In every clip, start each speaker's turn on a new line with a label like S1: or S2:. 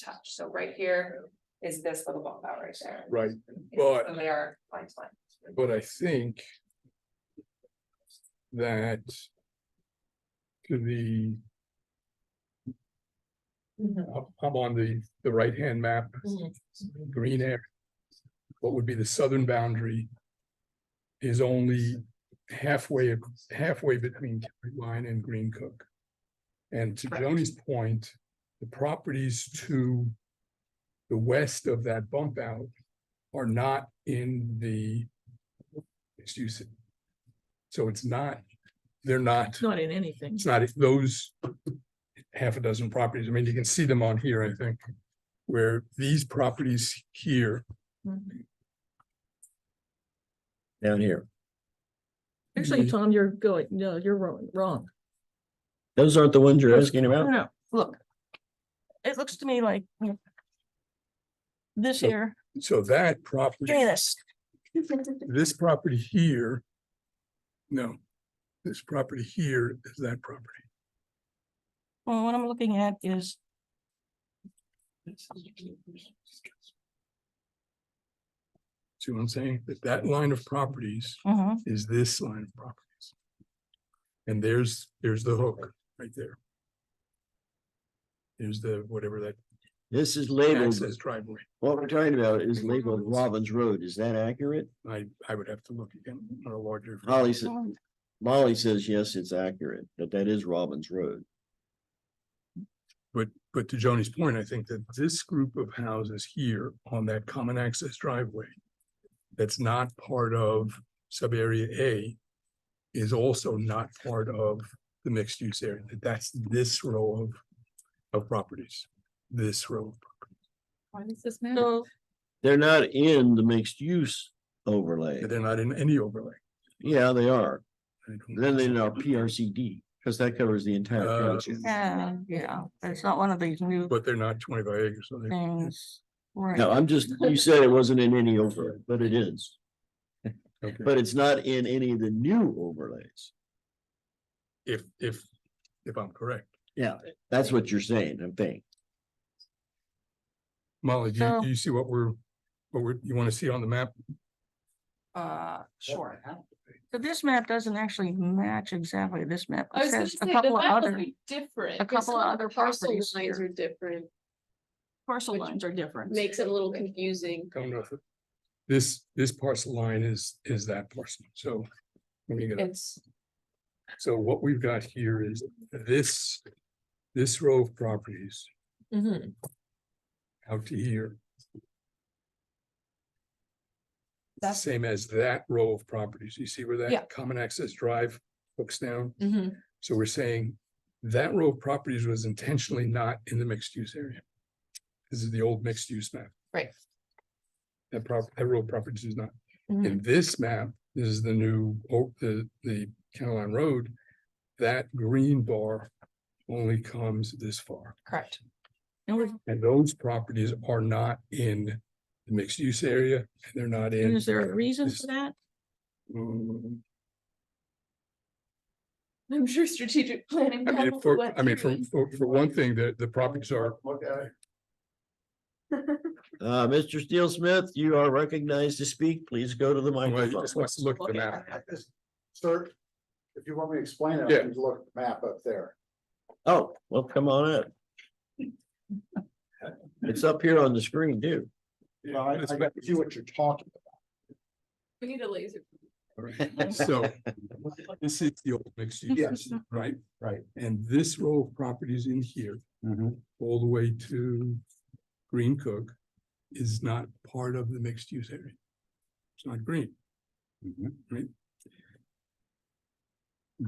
S1: touch. So right here is this little bump out right there.
S2: right,
S1: It's-
S2: But-
S1: So they are line to line.
S2: but I think. That. To the, I'm I'm on the, the right-hand map,
S3: Mm-hmm.
S2: green area. What would be the southern boundary? Is only halfway, halfway between County Line and Green Cook. And to
S1: Correct.
S2: Joni's point, the properties to. The west of that bump out are not in the. Mixed use. So it's not, they're not.
S4: It's not in anything.
S2: It's not, if those half a dozen properties, I mean, you can see them on here, I think, where these properties here,
S5: down here.
S4: Actually, Tom, you're going, no, you're wrong, wrong.
S5: Those aren't the ones you're asking
S4: No,
S5: about?
S4: no, look. It looks to me like. you know, This
S2: So-
S4: here,
S2: so that
S4: give me
S2: property,
S4: this.
S2: this property here. No, this property here is that property.
S4: Well, what I'm looking at is.
S2: See what I'm saying? That that line of properties
S4: uh
S2: is this line of properties. And there's, there's the hook right there. There's the, whatever that
S5: This is labeled,
S2: access driveway.
S5: what we're talking about is labeled Robbins Road. Is that accurate?
S2: I, I would have to look again on a larger.
S5: Holly says, Molly says, yes, it's accurate, but that is Robbins Road.
S2: But, but to Joni's point, I think that this group of houses here on that common access driveway. That's not part of sub area A. Is also not part of the mixed use area. That- That's this row of, of properties. This row.
S1: Why does this
S4: So,
S5: They're not in the mixed use overlay.
S2: They're not in any overlay.
S5: Yeah, they are.
S2: I don't-
S5: Then they're in our PRCD because that covers the entire
S2: Uh,
S5: township.
S4: yeah, yeah, it's not one of these new
S2: But they're not twenty-five acres, so they,
S4: things. Right.
S5: No, I'm just, you said it wasn't in any overlay, but it is.
S2: okay.
S5: But it's not in any of the new overlays.
S2: if, if, if I'm correct.
S5: Yeah. That's what you're saying, I think.
S2: Molly, do you,
S4: So-
S2: do you see what we're, what we're, you want to see on the map?
S4: Uh, sure. So this map doesn't actually match exactly this map.
S3: I
S4: It
S3: was gonna
S4: says
S3: say,
S4: a
S3: the
S4: couple of
S3: map will
S4: other
S3: be different.
S4: a
S3: because some
S4: couple of
S3: the
S4: other
S3: Parcel
S4: properties
S3: lines
S4: here.
S3: are different,
S4: parcel
S3: which
S4: lines are different.
S3: makes it a little confusing.
S2: Don't know if it- This, this parcel line is, is that parcel, so. let me get it.
S3: It's,
S2: So what we've got here is this, this row of properties
S4: Mm-hmm,
S1: Mhm.
S2: out to here.
S1: That's-
S2: Same as that row of properties, you see where
S1: Yeah.
S2: that common access drive hooks down?
S4: mm-hmm,
S1: Mhm.
S2: So we're saying that row of properties was intentionally not in the mixed use area. This is the old mixed use map.
S1: Right.
S2: That prop, that row of properties is not.
S4: Mm-hmm.
S1: Mhm.
S2: In this map, this is the new, oh, the, the County Line Road. That green bar only comes this far.
S1: Correct.
S4: And we're
S2: And those properties are not in the mixed use area. and They're not in.
S4: Is there a reason
S2: this-
S4: for that?
S2: Mm,
S3: I'm sure strategic planning.
S2: I mean,
S3: probably
S2: for,
S3: went
S2: I mean, for,
S3: through
S2: for, for one thing, the, the properties are,
S5: Uh, Mr. Steele Smith, you are recognized to speak. Please go to the
S2: well, you
S5: microphone.
S2: just want to look at the map.
S6: Sir, if you want me to explain it,
S2: Yeah.
S6: I can look at the map up there.
S5: Oh, well, come on up. It's up here on the screen too.
S6: Well, I, I got to see what you're talking
S3: We need a laser.
S2: So this is the old mixed use.
S6: Yes.
S2: Right?
S6: Right.
S2: And this row of properties in here
S6: about.
S2: all the way to Green Cook is not part of the mixed use area. It's not green.
S6: Mhm.
S2: Right?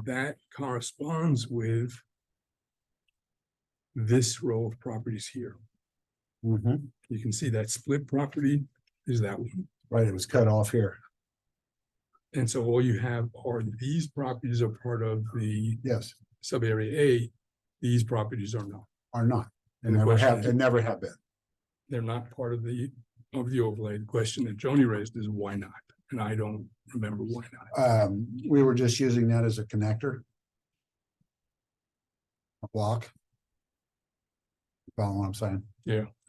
S2: That corresponds with this row of properties here. You can see that split property is that one.
S6: Right, it was cut off here.
S2: And so all you have are these properties are part of the
S6: Yes,
S2: sub area A. These properties are not.
S6: are not. They
S2: And the
S6: never
S2: question
S6: have,
S2: is-
S6: they never have been.
S2: they're not part of the, of the overlay. The question that Joni raised is why not? And I don't remember why not.
S6: Um, we were just using that as a connector. A block. Follow what I'm saying?
S2: Yeah.